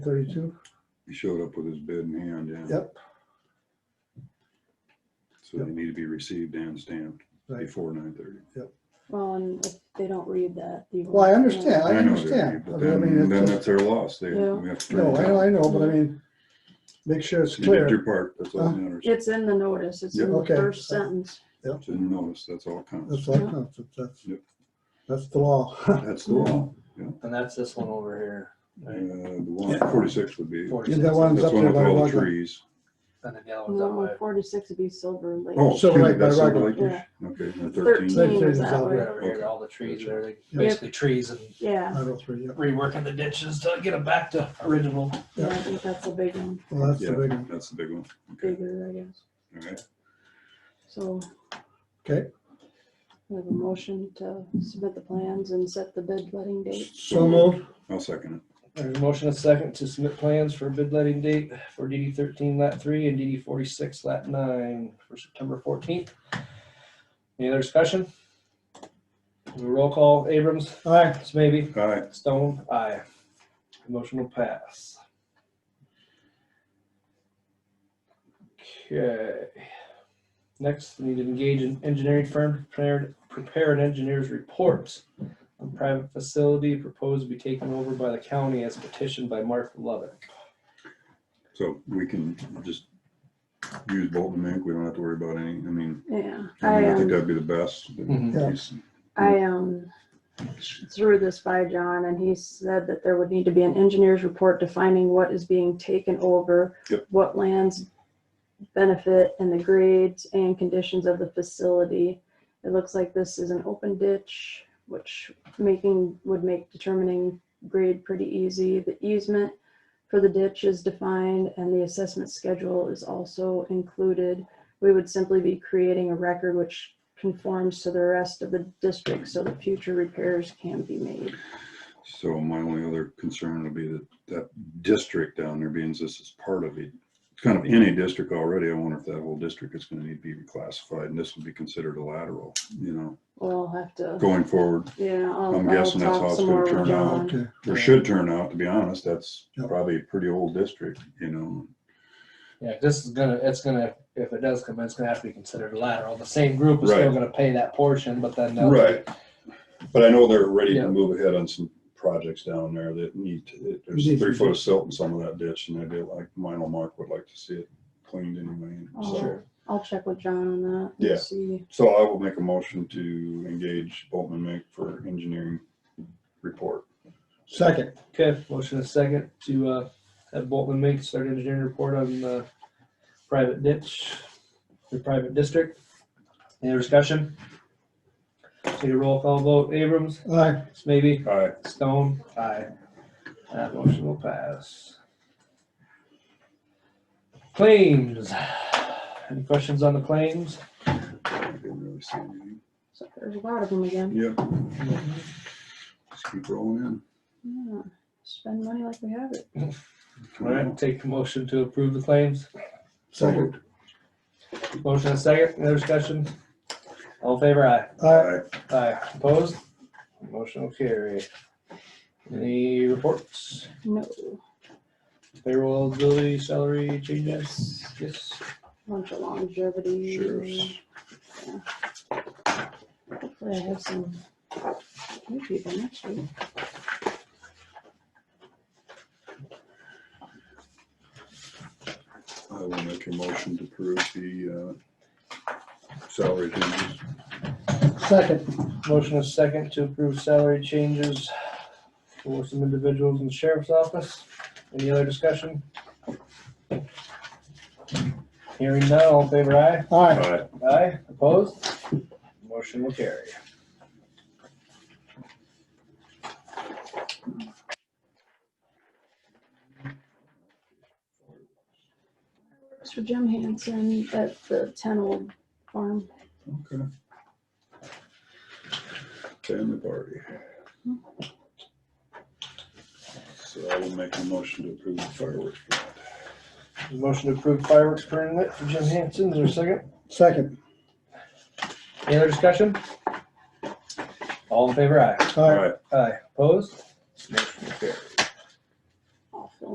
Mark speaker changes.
Speaker 1: thirty-two?
Speaker 2: He showed up with his bid in hand, yeah.
Speaker 1: Yep,
Speaker 2: So they need to be received and stamped
Speaker 1: right.
Speaker 2: before nine thirty.
Speaker 3: Well, and if they don't read that, you.
Speaker 1: Well, I
Speaker 3: won't know.
Speaker 1: understand, I understand. I
Speaker 2: But then,
Speaker 1: mean,
Speaker 2: then
Speaker 1: it's,
Speaker 2: that's their loss. They,
Speaker 3: Yeah.
Speaker 2: we have to.
Speaker 1: a- no,
Speaker 2: turn it down.
Speaker 1: I, I know, but I mean, make sure it's
Speaker 2: You did
Speaker 1: clear. Uh-huh.
Speaker 2: your part, that's all that matters.
Speaker 3: It's in the notice, it's in
Speaker 1: Yeah.
Speaker 3: the
Speaker 1: Okay.
Speaker 3: first sentence.
Speaker 2: It's in the notice, that's all that counts.
Speaker 1: That's all, that's, that's,
Speaker 2: Yep.
Speaker 1: that's the law.
Speaker 2: That's the law.
Speaker 4: And that's this one over here.
Speaker 2: Uh,
Speaker 4: right?
Speaker 2: the one, forty-six would be,
Speaker 4: Forty
Speaker 1: Yeah,
Speaker 4: six.
Speaker 1: that one's
Speaker 2: that's
Speaker 1: up
Speaker 2: one
Speaker 1: there
Speaker 2: with
Speaker 1: by
Speaker 2: all the
Speaker 1: Rugland.
Speaker 2: trees.
Speaker 4: And then the other one's up
Speaker 3: No,
Speaker 4: by.
Speaker 3: forty-six would be Silver Lake.
Speaker 2: Oh,
Speaker 1: So,
Speaker 2: excuse me,
Speaker 1: like, by
Speaker 2: that's Silver
Speaker 1: Rugland.
Speaker 2: Lake, okay, and thirteen.
Speaker 3: Thirteen
Speaker 1: Thirteen
Speaker 3: is
Speaker 1: is
Speaker 3: that
Speaker 1: out
Speaker 4: Right
Speaker 3: way.
Speaker 4: over here,
Speaker 2: Okay.
Speaker 4: all the trees there, they
Speaker 1: Yeah.
Speaker 4: basically trees and
Speaker 3: Yeah,
Speaker 1: Five oh three, yeah,
Speaker 4: reworking the ditches to get them back to original.
Speaker 3: yeah, I think that's a big one,
Speaker 1: well, that's the
Speaker 2: Yeah.
Speaker 1: big one,
Speaker 2: That's the big one, okay,
Speaker 3: bigger, I guess.
Speaker 2: all right.
Speaker 3: So
Speaker 1: okay,
Speaker 3: we have a motion to submit the plans and set the bid letting date.
Speaker 1: so moved,
Speaker 2: I'll second it.
Speaker 4: There's a motion and a second to submit plans for bid letting date for DD thirteen lat three and DD forty-six lat nine for September fourteenth. Any other discussion? Roll call, Abrams,
Speaker 1: aye,
Speaker 4: Smithy,
Speaker 2: All right,
Speaker 4: Stone, aye. Motion will pass. Okay. Next, we need to engage an engineering firm to prepare, prepare an engineer's report on private facility proposed to be taken over by the county as petitioned by Martha Lovett.
Speaker 2: so we can just use Bolton Mink, we don't have to worry about any, I mean,
Speaker 3: Yeah,
Speaker 2: I
Speaker 3: I,
Speaker 2: mean, I think
Speaker 3: um,
Speaker 2: that'd be the best.
Speaker 4: Mhm.
Speaker 2: He's-
Speaker 3: I, um, threw this by John and he said that there would need to be an engineer's report defining what is being taken over,
Speaker 2: Yep.
Speaker 3: what lands benefit and the grades and conditions of the facility. It looks like this is an open ditch, which making, would make determining grade pretty easy. The easement for the ditch is defined and the assessment schedule is also included. We would simply be creating a record which conforms to the rest of the district so that future repairs can be made.
Speaker 2: So my only other concern would be that that district down there, being this is part of it, it's kind of in a district already. I wonder if that whole district is gonna need to be reclassified and this would be considered a lateral, you know,
Speaker 3: We'll have to,
Speaker 2: going forward,
Speaker 3: yeah, I'll,
Speaker 2: I'm
Speaker 3: I'll
Speaker 2: guessing that's how
Speaker 3: talk
Speaker 2: it's
Speaker 3: some
Speaker 2: gonna
Speaker 3: more with
Speaker 2: turn out.
Speaker 3: John.
Speaker 1: okay,
Speaker 2: or should turn out, to be honest, that's
Speaker 1: Yep.
Speaker 2: probably a pretty old district, you know.
Speaker 4: Yeah, this is gonna, it's gonna, if it does come in, it's gonna have to be considered lateral. The same group is still
Speaker 2: Right.
Speaker 4: gonna pay that portion, but then. they'll-
Speaker 2: But I know they're ready
Speaker 4: Yeah.
Speaker 2: to move ahead on some projects down there that need, to- there's
Speaker 1: Need to
Speaker 2: three
Speaker 1: be-
Speaker 2: foot of silt in some of that ditch and I'd be like, mine Mark would like to see it cleaned anyway.
Speaker 3: Oh.
Speaker 2: So-
Speaker 4: Sure.
Speaker 3: I'll check with John on that. and
Speaker 2: Yeah.
Speaker 3: See,
Speaker 2: So I will make a motion to engage Boltman Mink for engineering report.
Speaker 1: second,
Speaker 4: Okay, motion and a second to uh, have Bolton make start engineering report on uh, private ditch, the private district. Any other discussion? Take a roll call vote. Abrams,
Speaker 1: aye,
Speaker 4: Smithy,
Speaker 2: All right,
Speaker 4: Stone, aye. That motion will pass. Claims. Any questions on the claims?
Speaker 2: I didn't really see anything.
Speaker 3: so there's a lot of them again.
Speaker 2: Yep. Just keep rolling
Speaker 3: Yeah, Spend money like we have it.
Speaker 2: in.
Speaker 4: All right, take the motion to approve the claims.
Speaker 1: second,
Speaker 4: Motion and a second. Any other discussion? All in favor, aye.
Speaker 1: aye,
Speaker 4: Aye, opposed? Motion will carry. Any reports?
Speaker 3: No,
Speaker 4: Payroll eligibility, salary changes? Yes.
Speaker 3: bunch of longevity.
Speaker 2: Sheriff's.
Speaker 3: Hopefully I have some new people next week.
Speaker 2: I will make a motion to approve the uh, salary changes.
Speaker 1: second,
Speaker 4: Motion is second to approve salary changes for some individuals in the sheriff's office. Any other discussion? Hearing none, all in favor, aye?
Speaker 1: aye,
Speaker 2: Aye.
Speaker 4: Aye, opposed? Motion will carry.
Speaker 3: It's for Jim Hansen at the ten old farm.
Speaker 2: Okay. Family party. So I will make a motion to approve the fireworks.
Speaker 4: Motion to approve fireworks permit for Jim Hanson, is there a second?
Speaker 1: second,
Speaker 4: Any other discussion? All in favor, aye.
Speaker 1: aye,
Speaker 4: Aye, opposed? Motion carries.